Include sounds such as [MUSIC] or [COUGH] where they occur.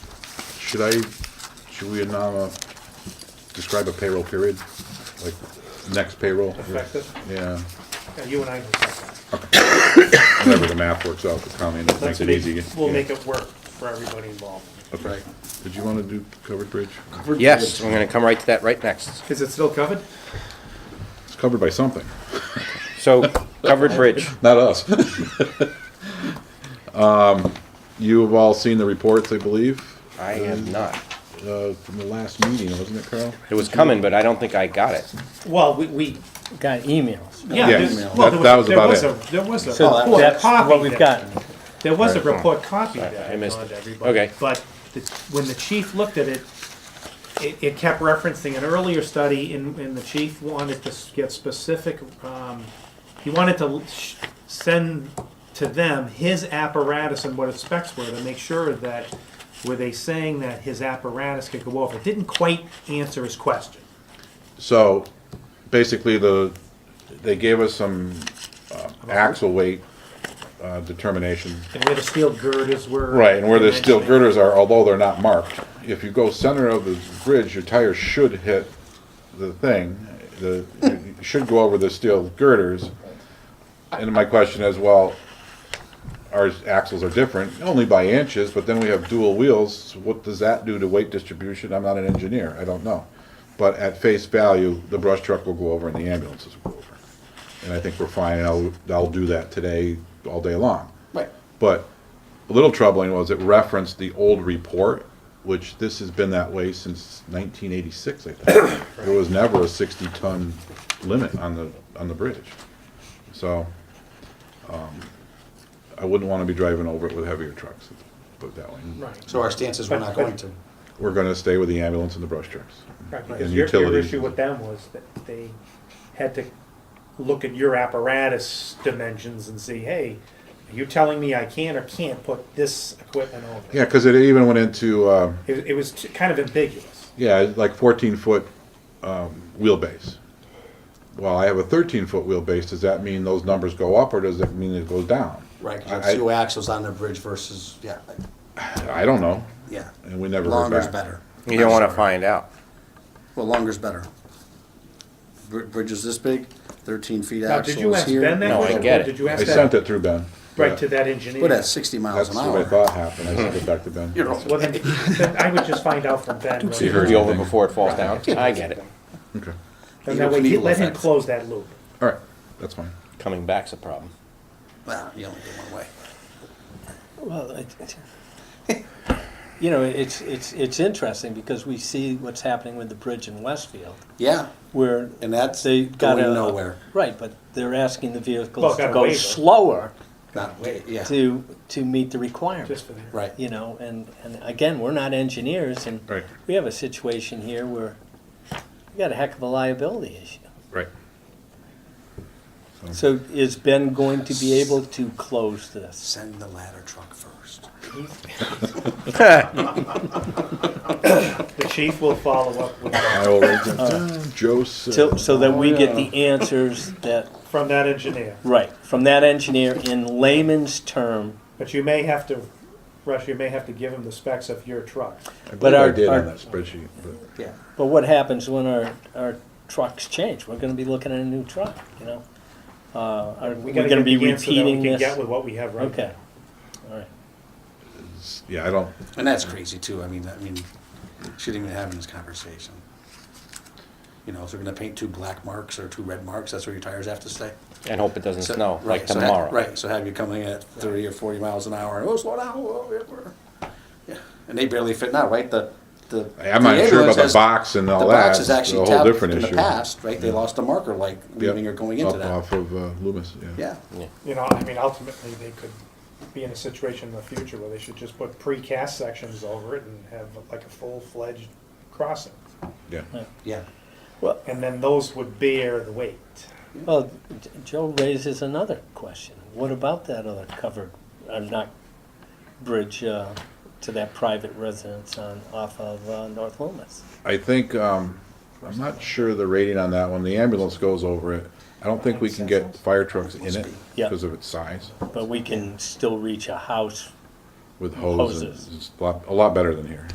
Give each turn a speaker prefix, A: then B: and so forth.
A: should I, should we now uh, describe a payroll period? Like, next payroll?
B: Effective.
A: Yeah,
B: Yeah, You and I can talk about it.
A: whenever the math works out, the county
B: Let's
A: makes it
B: make-
A: easy.
B: We'll
A: Yeah.
B: make it work for everybody involved.
A: Okay. Did you wanna do covered bridge?
C: Yes, I'm gonna come right to that right next.
B: Is it still covered?
A: It's covered by something,
C: So, covered bridge.
A: not us. [LAUGHS] Um, You have all seen the reports, I believe,
C: I am not.
A: uh, from the last meeting, wasn't it, Carl?
C: It was coming, but I don't think I got it.
B: Well, we, we,
D: Got emails.
B: yeah.
A: Yeah,
B: there's-
A: that-
B: well, there
A: that was
B: there
A: about
B: was
A: it.
B: a- There was a
D: So
B: report
D: that's
B: copy.
D: what we've
B: that-
D: got.
B: There was a
C: Alright,
B: report copy that
C: I
B: I
C: missed
B: gone to
C: it.
B: everybody.
C: Okay.
B: But the- when the chief looked at it, it, it kept referencing an earlier study and, and the chief wanted to s- get specific, um, he wanted to sh- send to them his apparatus and what its specs were to make sure that, were they saying that his apparatus could go over? It didn't quite answer his question.
A: So, basically, the, they gave us some uh, axle weight uh, determination.
B: And where the steel girders were.
A: Right, and where the steel
B: dimensioning.
A: girders are, although they're not marked, if you go center of the bridge, your tires should hit the thing, the, you should go over the steel girders. And my question is, well, our axles are different, only by inches, but then we have dual wheels, what does that do to weight distribution? I'm not an engineer, I don't know. But at face value, the brush truck will go over and the ambulances will go over. And I think we're fine, and I'll, I'll do that today, all day long.
C: Right.
A: But a little troubling was it referenced the old report, which this has been that way since 1986, I think. There was never a 60-ton limit on the, on the bridge. So, um, I wouldn't want to be driving over it with heavier trucks, put it that way.
B: Right,
E: So our stance is we're not going to.
A: We're going to stay with the ambulance and the brush trucks.
B: right, because
A: And
B: your, your
A: utilities.
B: issue with them was that they had to look at your apparatus dimensions and see, hey, are you telling me I can or can't put this equipment over?
A: Yeah, because it even went into, uh,
B: It, it was t- kind of ambiguous.
A: yeah, like 14-foot um, wheelbase. Well, I have a 13-foot wheelbase. Does that mean those numbers go up, or does it mean it goes down?
E: Right, 'cause
A: I- I-
E: there's two axles on the bridge versus, yeah, like,
A: I don't know.
E: yeah.
A: And we never heard
E: Longer's
A: back.
E: better.
C: You don't wanna find out.
E: Well, longer's better. Br- Bridge is this big, thirteen feet
B: Now,
E: axle
B: did you
E: is
B: ask Ben
E: here.
B: that
C: No, I
B: question?
C: get
B: or
C: it.
B: Did you
A: I
B: ask
A: sent
B: that
A: it through Ben.
B: right
A: Yeah.
B: to that engineer?
E: But at sixty miles
A: That's
E: an
A: what I
E: hour.
A: thought happened. I sent it back to Ben.
E: You're
B: Well, then,
E: okay.
B: then I would just find out from Ben. whether-
A: heard
C: Be over
A: anything.
C: before it falls down. I get it.
A: Okay.
B: And that way, he- let him close that loop.
A: All right. That's fine.
C: Coming back's a problem.
E: Well, you only go one way.
D: Well, it- it- [LAUGHS] you know, it's, it's, it's interesting because we see what's happening with the bridge in Westfield
E: Yeah,
D: where.
E: And that's
D: they got
E: going
D: a-
E: nowhere.
D: Right, but they're asking the
B: Well,
D: vehicles
B: got
D: to
B: a
D: go
B: waiver.
D: slower
E: not way, yeah,
D: to, to meet the requirements.
B: Just for that.
E: right.
D: You know, and, and again, we're not engineers and
A: Right.
D: we have a situation here where we got a heck of a liability issue.
A: Right.
D: So is Ben going to be able to close this?
E: Send the ladder truck first.
B: The chief will follow up with that
A: I Uh, will raise it. Joe said.
D: So, so that we get
B: Oh,
D: the answers that,
B: from that engineer.
D: right, from that engineer in layman's term.
B: But you may have to, Rush, you may have to give him the specs of your truck.
A: I
D: but
A: believe I
D: our-
A: did
D: our-
A: on that spreadsheet. but-
E: Yeah.
D: But what happens when our, our trucks change? We're gonna be looking at a new truck, you know? Uh, are we
B: gotta
D: gonna
B: get
D: be
B: the answer that
D: repeating
B: we can Get
D: this?
B: with what we have right now.
D: Okay, all right.
A: Yeah, I don't,
E: And that's crazy too, I mean, I mean, shouldn't even having this conversation. You know, if they're gonna paint two black marks or two red marks, that's where your tires have to stay.
C: And hope it doesn't
E: So-
C: snow, like
E: right, so ha-
C: tomorrow.
E: Right, so have you coming in at thirty or forty miles an hour, oh, slow down, whoa, whoa, whoa. Yeah, and they barely fit now, right, the, the.
A: I'm not sure
E: ambulance
A: about the
E: has-
A: box and all
E: The
A: that.
E: box is
A: It's
E: actually
A: a whole
E: tapped
A: different
E: in the
A: issue.
E: past, right, they lost a marker, like leaving or going into
A: Up
E: that,
A: Off of uh, Loomis, yeah.
E: yeah.
B: You know, I mean, ultimately, they could be in a situation in the future where they should just put precast sections over it and have like a full-fledged crossing.
A: Yeah.
E: Yeah,
D: Well,
B: And then those would bear the weight.
D: well, J- Joe raises another question. What about that other covered, uh, not bridge, uh, to that private residence on, off of, uh, North Loomis?
A: I think, um, I'm not sure the rating on that one. The ambulance goes over it. I don't think we can get fire trucks in it
D: Yeah.
A: because of its size
D: But we can still reach a house
A: with hoses.
D: Hoses.
A: It's a lot, a lot better than here.